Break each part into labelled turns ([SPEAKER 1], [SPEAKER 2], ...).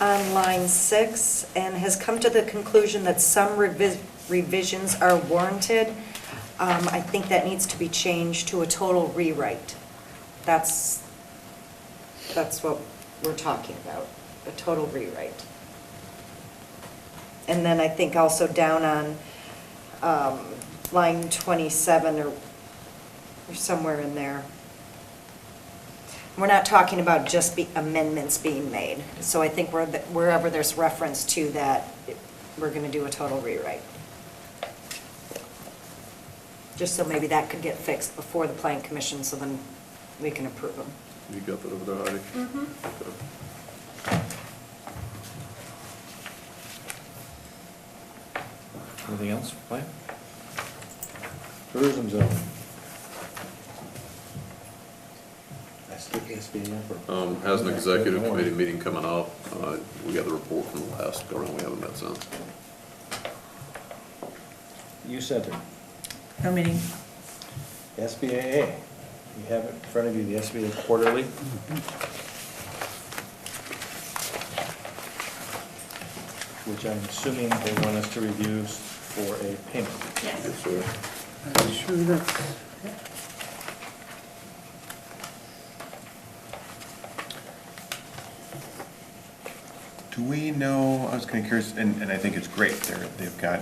[SPEAKER 1] on line six and has come to the conclusion that some revi- revisions are warranted. Um, I think that needs to be changed to a total rewrite. That's, that's what we're talking about, a total rewrite. And then I think also down on um, line 27 or or somewhere in there. We're not talking about just be- amendments being made. So I think where the- wherever there's reference to that, it- we're going to do a total rewrite. Just so maybe that could get fixed before the plan commission, so then we can approve them.
[SPEAKER 2] You got that over there, Heidi?
[SPEAKER 1] Mhm.
[SPEAKER 2] Okay.
[SPEAKER 3] Anything else, Mike? Tourism zone. I still can't speed enough. for-
[SPEAKER 2] Um, Has an executive committee meeting coming up. Uh, We got the report from the last go around, we haven't met since.
[SPEAKER 3] You sent it.
[SPEAKER 4] No meeting.
[SPEAKER 3] SBAA, you have in front of you the SBA quarterly. Which I'm assuming they want us to review for a payment.
[SPEAKER 2] Yes, sir.
[SPEAKER 5] I'm sure that's,
[SPEAKER 6] Do we know, I was kind of curious, and, and I think it's great, they're, they've got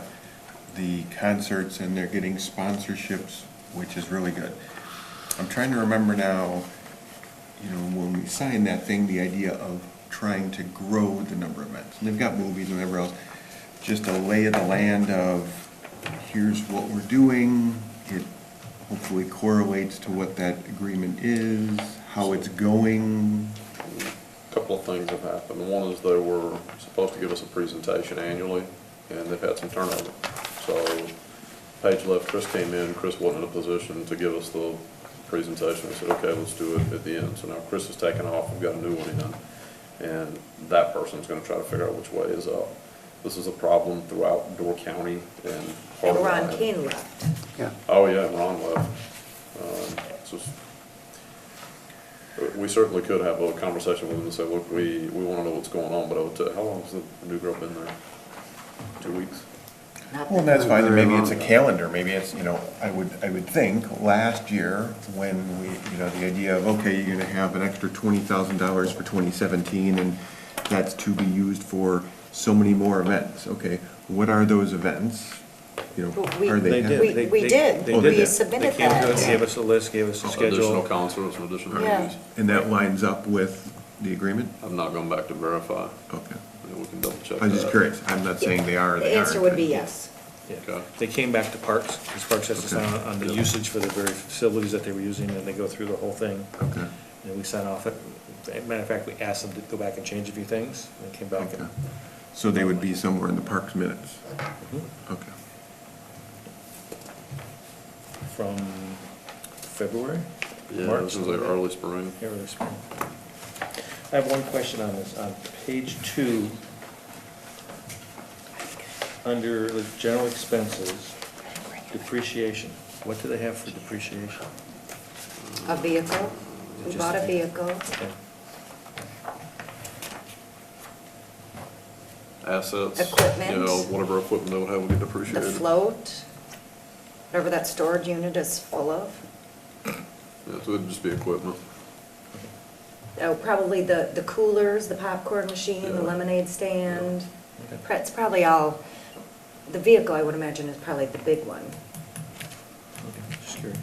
[SPEAKER 6] the concerts and they're getting sponsorships, which is really good. I'm trying to remember now, you know, when we signed that thing, the idea of trying to grow the number of events. And they've got movies and whatever else, just a lay of the land of, here's what we're doing, it hopefully correlates to what that agreement is, how it's going.
[SPEAKER 2] Couple of things have happened. One is they were supposed to give us a presentation annually, and they've had some turnover. So Paige left, Chris came in, Chris wasn't in a position to give us the presentation. We said, okay, let's do it at the end. So now Chris has taken off, we've got a new one in, and that person's gonna try to figure out which way is up. This is a problem throughout Door County and. part
[SPEAKER 1] And
[SPEAKER 2] of
[SPEAKER 1] Ron
[SPEAKER 6] uh,
[SPEAKER 2] Lyon.
[SPEAKER 1] Keane left.
[SPEAKER 5] yeah.
[SPEAKER 2] Oh, yeah, and Ron left. Um, it's just- We certainly could have a conversation with them and say, look, we, we want to know what's going on, but I would tell, how long's the new girl been there? Two weeks?
[SPEAKER 1] Not
[SPEAKER 6] Well,
[SPEAKER 1] that-
[SPEAKER 6] that's fine, and
[SPEAKER 5] Very
[SPEAKER 6] maybe it's a
[SPEAKER 5] long.
[SPEAKER 6] calendar, maybe it's, you know, I would, I would think, last year, when we, you know, the idea of, okay, you're gonna have an extra twenty thousand dollars for twenty seventeen, and that's to be used for so many more events, okay, what are those events? You
[SPEAKER 1] But
[SPEAKER 6] know,
[SPEAKER 1] we-
[SPEAKER 6] are they?
[SPEAKER 3] They
[SPEAKER 6] happening?
[SPEAKER 3] did.
[SPEAKER 1] We-
[SPEAKER 3] They-
[SPEAKER 1] we
[SPEAKER 3] they-
[SPEAKER 1] did.
[SPEAKER 3] they
[SPEAKER 6] We
[SPEAKER 3] that.
[SPEAKER 1] submitted
[SPEAKER 3] They came to us,
[SPEAKER 1] that.
[SPEAKER 3] gave us a list, gave us a
[SPEAKER 2] Additional
[SPEAKER 3] schedule.
[SPEAKER 2] concerts and additional
[SPEAKER 1] Yeah.
[SPEAKER 2] movies.
[SPEAKER 6] And that lines up with the agreement?
[SPEAKER 2] I've not gone back to verify.
[SPEAKER 6] Okay,
[SPEAKER 2] Yeah, We can double check
[SPEAKER 6] I was just
[SPEAKER 2] that.
[SPEAKER 6] curious, I'm not saying they are or
[SPEAKER 1] The
[SPEAKER 6] they aren't.
[SPEAKER 1] answer would be
[SPEAKER 6] but-
[SPEAKER 1] yes.
[SPEAKER 3] Yeah.
[SPEAKER 2] Okay.
[SPEAKER 3] They came back to Parks, because Parks has to sign on- on the
[SPEAKER 2] Okay.
[SPEAKER 3] usage for the very facilities that they were using, and they go through the whole thing.
[SPEAKER 6] Okay,
[SPEAKER 3] And we sign off, it. matter of fact, we asked them to go back and change a few things, and they came back
[SPEAKER 6] okay,
[SPEAKER 3] and.
[SPEAKER 6] so they would be somewhere in the parks minutes,
[SPEAKER 3] Mhm.
[SPEAKER 6] okay.
[SPEAKER 3] From February?
[SPEAKER 2] Yeah,
[SPEAKER 3] March?
[SPEAKER 2] this is like early spring.
[SPEAKER 3] Yeah, early spring. I have one question on this, on page two, under the general expenses, depreciation, what do they have for depreciation?
[SPEAKER 1] A vehicle, we
[SPEAKER 3] Just
[SPEAKER 1] bought a
[SPEAKER 3] a vehicle.
[SPEAKER 1] vehicle.
[SPEAKER 3] Okay.
[SPEAKER 2] Assets.
[SPEAKER 1] Equipment.
[SPEAKER 2] You know, whatever equipment they would have would get
[SPEAKER 1] The
[SPEAKER 2] depreciated.
[SPEAKER 1] float, whatever that storage unit is full of.
[SPEAKER 2] Yeah, so it'd just be equipment.
[SPEAKER 1] Oh, probably the, the coolers, the popcorn machine,
[SPEAKER 2] Yeah.
[SPEAKER 1] the lemonade stand.
[SPEAKER 3] Yeah.
[SPEAKER 1] Pr- It's probably all, the vehicle, I would imagine, is probably the big one.
[SPEAKER 3] Okay, Just curious.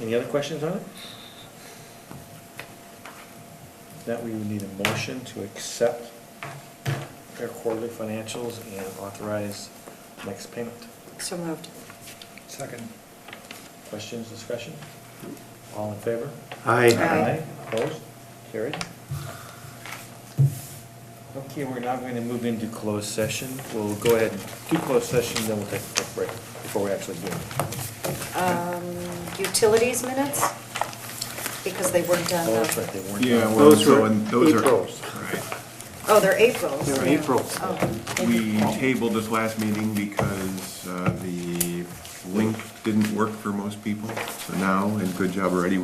[SPEAKER 3] Any other questions on it? If Not, we would need a motion to accept their quarterly financials and authorize next payment.
[SPEAKER 1] So moved.
[SPEAKER 3] Second. Questions, discussion? All in favor?
[SPEAKER 1] Aye.
[SPEAKER 5] I,
[SPEAKER 3] Opposed? Carried. Okay, we're now going to move into closed session. We'll go ahead and do closed session, then we'll take a quick break before we actually do it.
[SPEAKER 1] Um, Utilities minutes, because they weren't done.
[SPEAKER 3] Oh, that's right, they weren't.
[SPEAKER 6] Yeah, well,
[SPEAKER 5] those
[SPEAKER 6] so,
[SPEAKER 5] were
[SPEAKER 6] and those are.
[SPEAKER 5] April's.
[SPEAKER 6] Right.
[SPEAKER 1] Oh, they're April's.
[SPEAKER 5] They're
[SPEAKER 1] yeah.
[SPEAKER 5] April's.
[SPEAKER 1] Oh.
[SPEAKER 6] We tabled this last meeting because uh, the link didn't work for most people. So now, and good job already,